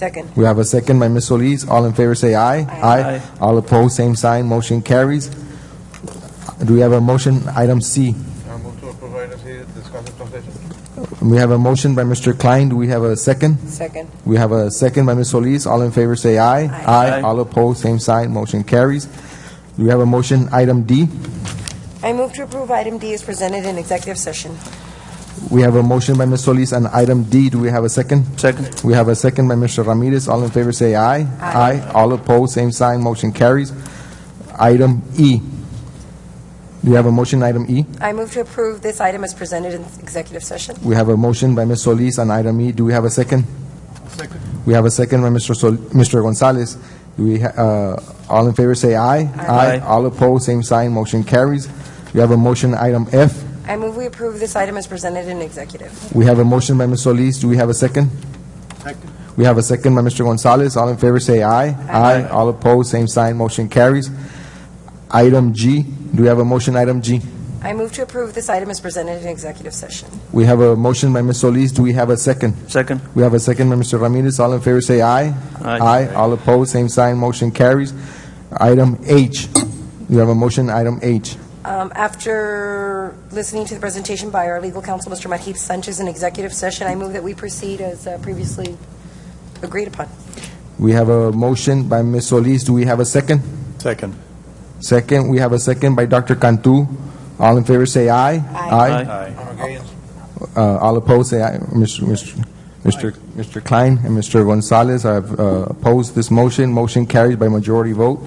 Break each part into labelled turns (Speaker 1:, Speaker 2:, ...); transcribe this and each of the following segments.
Speaker 1: Second.
Speaker 2: We have a second by Ms. Solis. All in favor say aye.
Speaker 3: Aye.
Speaker 2: All opposed, same sign, motion carries. Do we have a motion, item C?
Speaker 4: I move to approve item C, discuss and consider.
Speaker 2: We have a motion by Mr. Klein. Do we have a second?
Speaker 1: Second.
Speaker 2: We have a second by Ms. Solis. All in favor say aye.
Speaker 3: Aye.
Speaker 2: All opposed, same sign, motion carries. Do we have a motion, item D?
Speaker 1: I move to approve item D as presented in executive session.
Speaker 2: We have a motion by Ms. Solis on item D. Do we have a second?
Speaker 3: Second.
Speaker 2: We have a second by Mr. Ramirez. All in favor say aye.
Speaker 1: Aye.
Speaker 2: All opposed, same sign, motion carries. Item E. Do we have a motion, item E?
Speaker 1: I move to approve this item as presented in executive session.
Speaker 2: We have a motion by Ms. Solis on item E. Do we have a second?
Speaker 4: Second.
Speaker 2: We have a second by Mr. Sol- Mr. Gonzalez. Do we, ha- uh, all in favor say aye.
Speaker 3: Aye.
Speaker 2: All opposed, same sign, motion carries. We have a motion, item F.
Speaker 1: I move we approve this item as presented in executive.
Speaker 2: We have a motion by Ms. Solis. Do we have a second?
Speaker 4: Second.
Speaker 2: We have a second by Mr. Gonzalez. All in favor say aye.
Speaker 1: Aye.
Speaker 2: All opposed, same sign, motion carries. Item G, do we have a motion, item G?
Speaker 1: I move to approve this item as presented in executive session.
Speaker 2: We have a motion by Ms. Solis. Do we have a second?
Speaker 3: Second.
Speaker 2: We have a second by Mr. Ramirez. All in favor say aye.
Speaker 3: Aye.
Speaker 2: All opposed, same sign, motion carries. Item H, we have a motion, item H.
Speaker 1: Um, After listening to the presentation by our legal counsel, Mr. Mahip Sanchez, in executive session, I move that we proceed as uh, previously agreed upon.
Speaker 2: We have a motion by Ms. Solis. Do we have a second?
Speaker 4: Second.
Speaker 2: Second, we have a second by Dr. Cantu. All in favor say aye.
Speaker 3: Aye.
Speaker 4: I'm against.
Speaker 2: Uh, All opposed, say aye. Mr. Mr. Mr. Mr. Klein and Mr. Gonzalez have uh, opposed this motion. Motion carries by majority vote.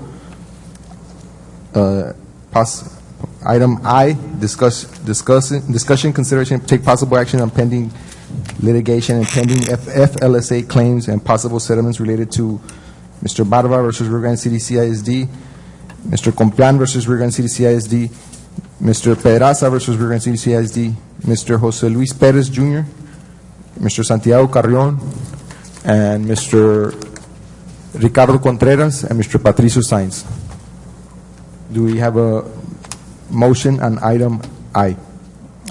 Speaker 2: Uh, Pass, item I, discuss, discussing, discussion, consideration, take possible action on pending litigation and pending F- FLSA claims and possible settlements related to Mr. Barba versus Rio Grande City CISD, Mr. Complan versus Rio Grande City CISD, Mr. Pedraza versus Rio Grande City CISD, Mr. Jose Luis Perez Jr., Mr. Santiago Carrion, and Mr. Ricardo Contreras, and Mr. Patricio Sainz. Do we have a motion on item I?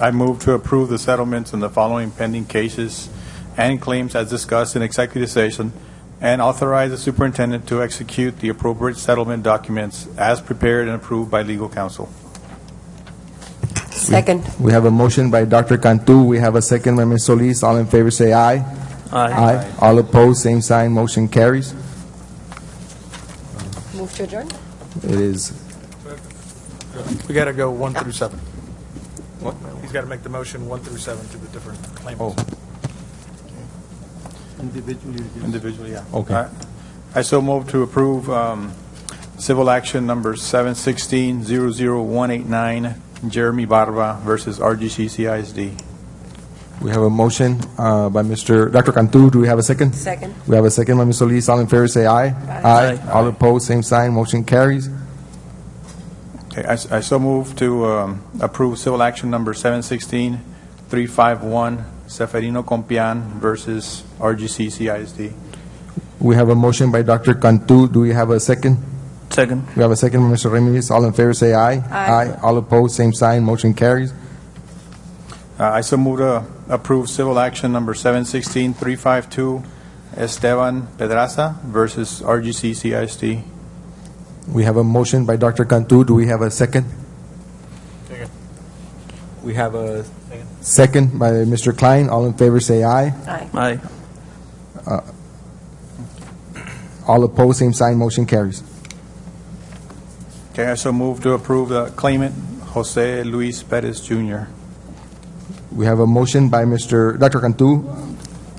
Speaker 5: I move to approve the settlements in the following pending cases and claims as discussed in executive session, and authorize the superintendent to execute the appropriate settlement documents as prepared and approved by legal counsel.
Speaker 1: Second.
Speaker 2: We have a motion by Dr. Cantu, we have a second by Ms. Solis. All in favor, say aye.
Speaker 3: Aye.
Speaker 2: All opposed, same sign, motion carries.
Speaker 1: Move to adjourn?
Speaker 2: It is
Speaker 6: We got to go one through seven. He's got to make the motion one through seven to the different claimants.
Speaker 5: Individually, yeah.
Speaker 2: Okay.
Speaker 5: I- I so move to approve um, civil action number 716-00189, Jeremy Barba versus RGC CISD.
Speaker 2: We have a motion uh, by Mr. Dr. Cantu, do we have a second?
Speaker 1: Second.
Speaker 2: We have a second by Ms. Solis, all in favor say aye.
Speaker 3: Aye.
Speaker 2: All opposed, same sign, motion carries.
Speaker 5: Okay, I s- I so move to um, approve civil action number 716-351, Seferino Compian versus RGC CISD.
Speaker 2: We have a motion by Dr. Cantu, do we have a second?
Speaker 3: Second.
Speaker 2: We have a second by Mr. Ramirez, all in favor say aye.
Speaker 1: Aye.
Speaker 2: All opposed, same sign, motion carries.
Speaker 5: Uh, I so move to approve civil action number 716-352, Esteban Pedraza versus RGC CISD.
Speaker 2: We have a motion by Dr. Cantu, do we have a second?
Speaker 4: Second.
Speaker 2: We have a second by Mr. Klein, all in favor say aye.
Speaker 1: Aye.
Speaker 3: Aye.
Speaker 2: All opposed, same sign, motion carries.
Speaker 5: Okay, I so move to approve the claimant Jose Luis Perez Jr.
Speaker 2: We have a motion by Mr. Dr. Cantu,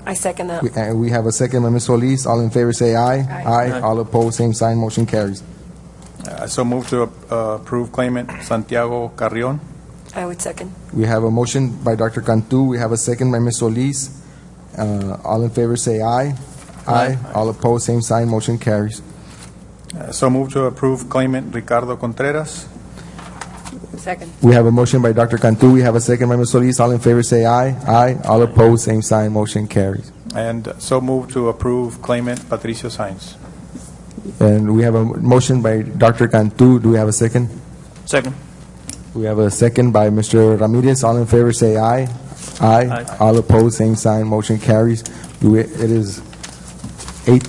Speaker 1: I second that.
Speaker 2: We- uh, We have a second by Ms. Solis. All in favor, say aye.
Speaker 1: Aye.
Speaker 3: Aye.
Speaker 2: All opposed, same sign, motion carries.
Speaker 5: I so move to uh, approve claimant Santiago Carrion.
Speaker 1: I would second.
Speaker 2: We have a motion by Dr. Cantu. We have a second by Ms. Solis. Uh, All in favor, say aye. Aye. All opposed, same sign, motion carries.
Speaker 5: I So move to approve claimant Ricardo Contreras.
Speaker 1: Second.
Speaker 2: We have a motion by Dr. Cantu. We have a second by Ms. Solis. All in favor, say aye. Aye. All opposed, same sign, motion carries.
Speaker 5: And so move to approve claimant Patricio Sainz.
Speaker 2: And we have a motion by Dr. Cantu. Do we have a second?
Speaker 3: Second.
Speaker 2: We have a second by Mr. Ramirez. All in favor, say aye. Aye.
Speaker 3: Aye.
Speaker 2: All opposed, same sign, motion carries. Do we- It is